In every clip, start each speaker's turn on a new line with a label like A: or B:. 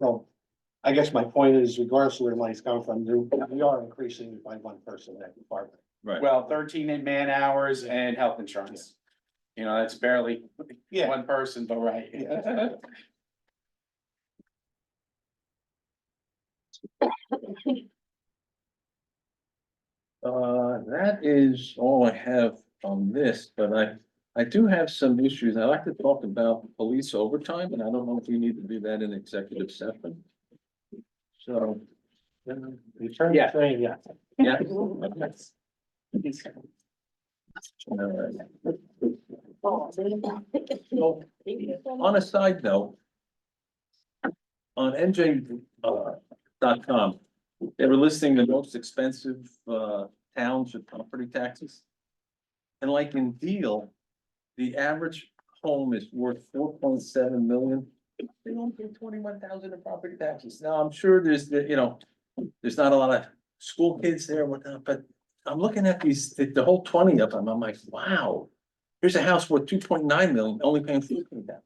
A: So I guess my point is regardless of where money's coming from, there- we are increasing by one person in that department.
B: Right.
C: Well, thirteen in man hours and health insurance. You know, that's barely
A: Yeah,
C: one person, but right.
A: Yeah.
B: Uh, that is all I have on this, but I, I do have some issues. I'd like to talk about police overtime, and I don't know if we need to do that in executive session. So,
A: return
C: Yeah.
A: to training, yeah.
B: yeah. okay. All right. So, On a side note. On NJ, uh, dot com, they were listing the most expensive, uh, towns with property taxes. And like in Deal, the average home is worth four point seven million. They don't pay twenty-one thousand in property taxes. Now, I'm sure there's, the you know, there's not a lot of school kids there and whatnot, but I'm looking at these, the, the whole twenty of them, I'm like, wow. Here's a house worth two point nine million, only paying fifteen thousand.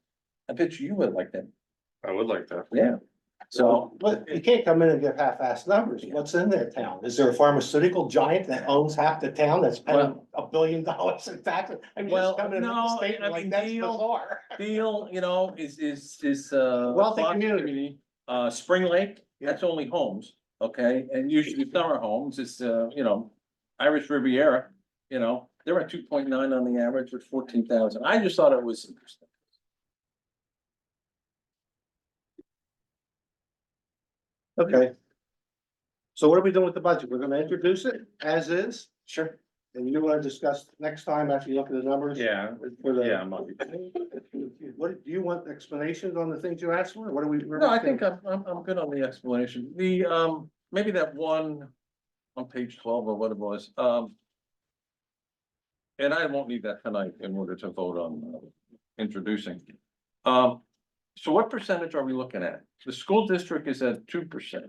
B: I bet you would like that.
D: I would like that.
B: Yeah. So,
A: So, but you can't come in and give half-assed numbers. What's in their town? Is there a pharmaceutical giant that owns half the town that's paying
B: Well-
A: a billion dollars in taxes? I mean,
B: Well,
A: just coming in with a
B: no, I
A: statement like
B: mean,
A: that's
B: Neil-
A: bizarre.
B: Deal, you know, is, is, is, uh.
A: Wealthy
B: Fox-
A: community.
B: Uh, Spring Lake, that's only homes, okay, and usually summer homes, it's, uh, you know, Irish Riviera. You know, they're at two point nine on the average with fourteen thousand. I just thought it was interesting.
A: Okay. So what are we doing with the budget? We're gonna introduce it as is? Sure. And you wanna discuss next time after you look at the numbers?
D: Yeah,
A: For the-
D: yeah, I'm on it.
A: What, do you want explanations on the things you asked for? What do we?
B: No, I think uh, I'm, I'm, I'm good on the explanation. The, um, maybe that one on page twelve or what it was, um. And I won't need that tonight in order to vote on uh, introducing. Um, so what percentage are we looking at? The school district is at two percent.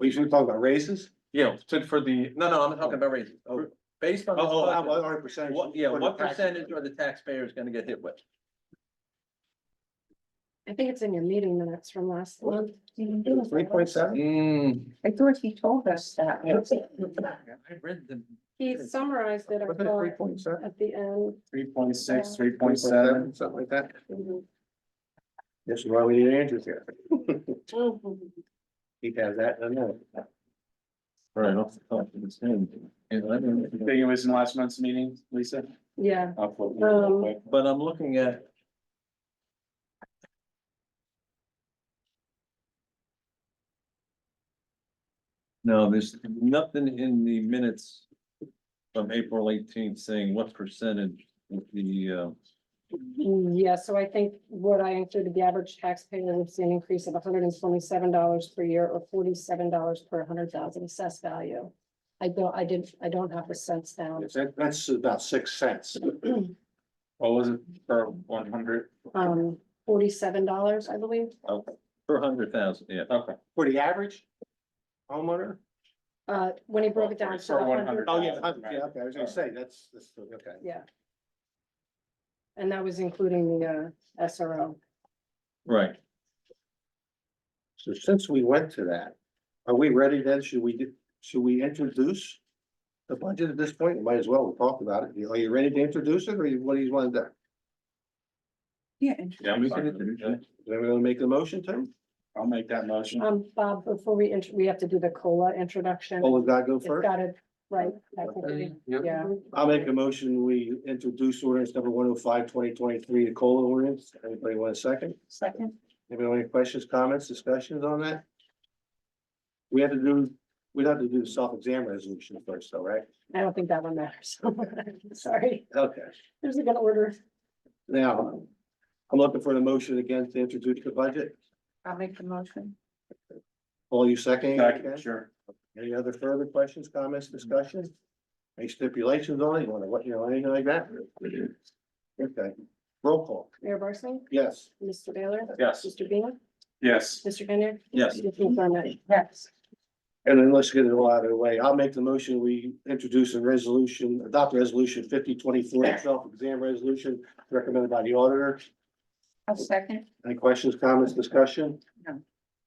A: We should talk about raises?
B: Yeah, to, for the, no, no, I'm talking about raises.
A: Oh.
B: Based on. this
A: Oh, how
B: budget,
A: about our percentage?
B: What, yeah,
A: for the
B: what
A: taxes?
B: percentage are the taxpayers gonna get hit with?
E: I think it's in your meeting minutes from last month.
A: Three point seven?
E: I thought he told us that.
B: I read them.
E: He summarized it I
A: Wasn't it three
E: thought,
A: point seven?
E: at the end.
C: Three point six, three point seven.
A: Something like that.
E: Mhm.
A: This is why we need Andrews here. Mm-hmm.
E: Mhm.
A: He has that, I know.
B: Right, off the top of his head. And I don't-
C: Think it was in last month's meeting, Lisa?
E: Yeah,
C: I'll flip it real
E: Um,
C: quick.
B: But I'm looking at. No, there's nothing in the minutes from April eighteenth saying what percentage of the, uh,
E: mm, yeah, so I think what I included, the average taxpayer would see an increase of hundred and twenty-seven dollars per year or forty-seven dollars per hundred thousand assessed value. I don't, I did, I don't have the cents down.
A: That- That's about six cents.
C: What was it for one hundred?
E: Um, forty-seven dollars, I believe.
B: per hundred thousand, yeah.
C: Okay.
A: For the average homeowner?
E: Uh, when he broke it down. to
C: For
E: the
C: 100.
E: hundred-
A: Oh, yeah, yeah, okay, I was gonna say, that's, that's, okay.
E: Yeah. And that was including the uh, SRO.
B: Right,
A: So since we went to that, are we ready then? Should we, do- should we introduce? The budget at this point, might as well, we'll talk about it. You- Are you ready to introduce it or you- what do you want to do?
D: Yeah, I'm
B: We
D: fine
B: can
D: with
B: introduce
D: it.
A: Is everyone make the motion to?
C: I'll make that motion.
E: Um, Bob, before we, int- we have to do the COLA introduction.
A: Oh, we've got to go
E: It's
A: first?
E: got it, right, technically, yeah.
A: I'll make a motion, we introduce ordinance number 105 2023, the COLA ordinance. Anybody want a second?
E: Second.
A: Anybody have any questions, comments, discussions on that? We have to do, we'd have to do the self-exam resolution first, though, right?
E: I don't think that one matters. Sorry,
A: Okay.
E: there's a good order.
A: Now, I'm looking for the motion again to introduce the budget.
E: I'll make the motion.
A: Paul, you seconding it
C: Second,
A: again?
C: Sure.
A: Any other further questions, comments, discussions? Any stipulations on it? You wanna, what, you know, anything like that? Okay, roll call,
E: Mayor Barsling,
A: yes.
E: Mr. Baylor,
C: Yes.
E: Mr. Bean,
C: Yes.
E: Mr. Kennard.
B: Yes.
E: Mr. McDermott. Yes.
A: And then let's get it all out of the way. I'll make the motion. We introduce a resolution, adopt resolution fifty twenty-four, self-exam resolution recommended by the auditor.
F: A second?
A: Any questions, comments, discussion?
F: No.